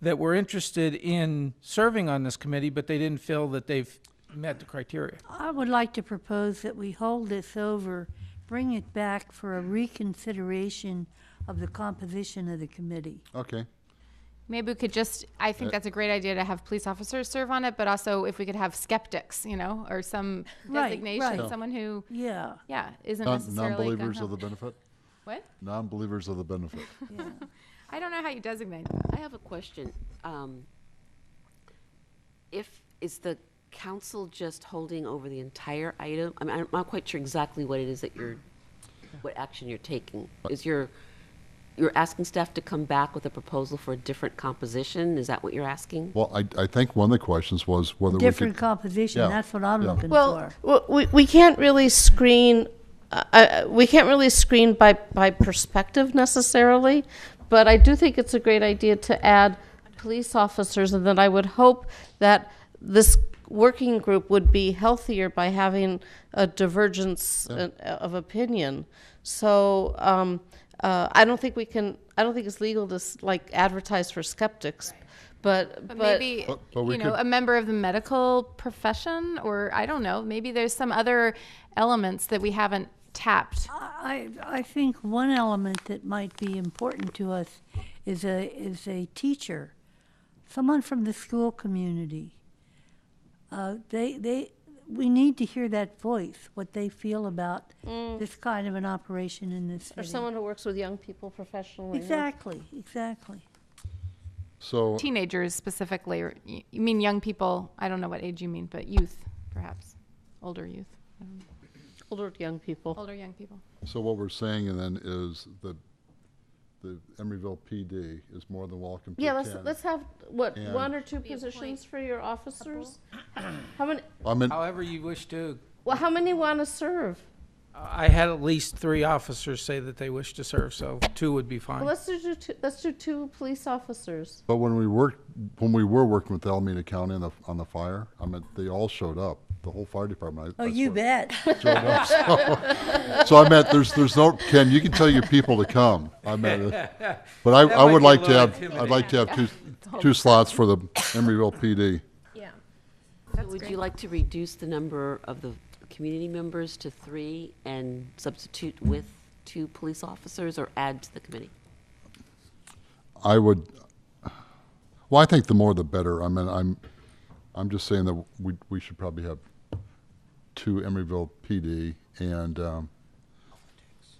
that were interested in serving on this committee, but they didn't feel that they've met the criteria. I would like to propose that we hold this over, bring it back for a reconsideration of the composition of the committee. Okay, Maybe we could just, I Uh, think that's a great idea to have police officers serve on it, but also if we could have skeptics, you know, or some Right, designation, right. someone who, Yeah, yeah, isn't Non- necessarily. gung non-believers ho. of the benefit, What? non-believers of the benefit. yeah. I don't know how you designate. I have a question. Um, If, is the council just holding over the entire item? I mean, I'm not quite sure exactly what it is that you're, what action you're taking. Is your, you're asking staff to come back with a proposal for a different composition? Is that what you're asking? Well, I, I think one of the questions was whether we Different could, composition, yeah, that's what I'm yeah. looking Well, for. w- we, we can't really screen, uh, uh, we can't really screen by, by perspective necessarily, but I do think it's a great idea to add police officers, and then I would hope that this working group would be healthier by having a divergence uh, of opinion. So, um, uh, I don't think we can, I don't think it's legal to, s- like, advertise for skeptics, but, But but, maybe, But- Oh, but we you know, could- a member of the medical profession, or I don't know, maybe there's some other elements that we haven't tapped. I, I think one element that might be important to us is a, is a teacher, someone from the school community. Uh, they, they, we need to hear that voice, what they feel about this kind of an operation in this Mm. or city. someone who works with young people professionally. yeah. Exactly, exactly. so, Teenagers specifically, or y- you mean young people, I don't know what age you mean, but youth, perhaps, older youth, Older young people. older young people. so what we're saying then is that the Emeryville PD is more than welcome to Yeah, let's, attend. let's have, what, uh, Yeah. one or two positions for your officers? How many, I mean, However you wish to. Uh, well, how many want to serve? I had at least three officers say that they wish to serve, so two would be Well, fine. let's do two, let's do two police officers. but when we worked, when we were working with Alameda County on the, on the fire, I mean, they all showed up, the whole fire department. I- Oh, that's you what- bet. So I meant, there's, there's no, Ken, you can tell your people to come. I meant, it. but I, I might would be a like to little have, I'd like to have two, two slots for the Emeryville PD. Yeah. Would you like to reduce the number of the community members to three and substitute with two police officers or add to the committee? I would, well, I think the more the better. I mean, I'm, I'm just saying that we, we should probably have two Emeryville PD and, um,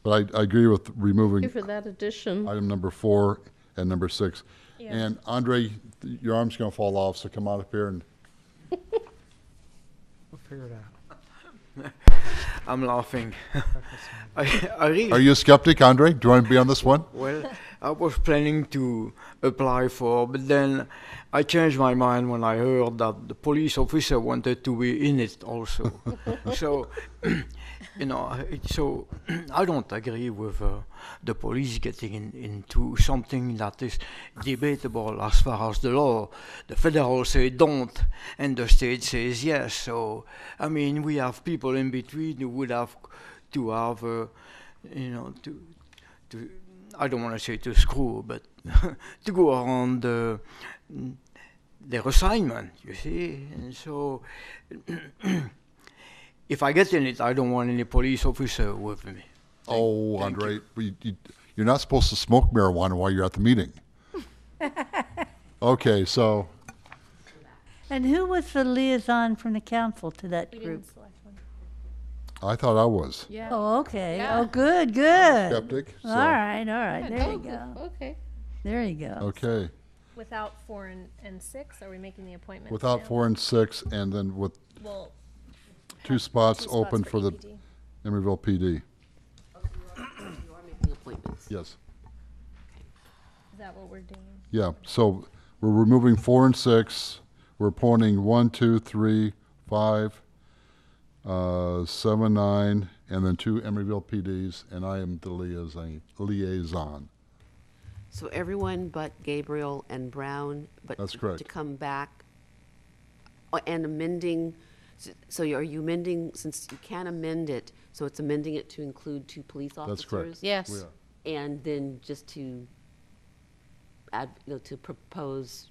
but I, I agree with removing. Thank you for that addition. item number four and number six. And Andre, th- your arm's going to fall off, so come on up here and, We'll figure it out. I'm laughing. I, I are really, you a skeptic, Andre? Do you want to be on this one? well, I was planning to apply for, but then I changed my mind when I heard that the police officer wanted to be in it also. so, you know, it- so I don't agree with uh, the police getting in, into something that is debatable as far as the law. The federal say don't, and the state says yes. So, I mean, we have people in between who would have to have, uh, you know, to, to I don't want to say to screw, but to go around the, their assignment, you see. And so, if I get in it, I don't want any police officer with me. Oh, Andre, we- you- you're not supposed to smoke marijuana while you're at the meeting. Okay, so, And who was the liaison from the council to that group? I thought I was Yeah. Oh, okay. Yeah. Oh, good, good. skeptic, All so, right, all right. There you go. Okay. There you go. okay. Without four and, and six, are we making the appointment? Without now? four and six, and then with Well, um, two spots two open spots E for the EPD. Emeryville PD. You are making appointments. Yes, Is that what we're doing? yeah, so we're removing four and six, we're appointing one, two, three, five, uh, seven, nine, and then two Emeryville PDs, and I am the liaison. Liaison. So everyone but Gabriel and Brown, but. That's to- correct. To come back, Oh, and amending, s- so you- are you amending, since you can amend it, so it's amending it to include two police officers? That's correct. Yes. are. And then just to add, you know, to propose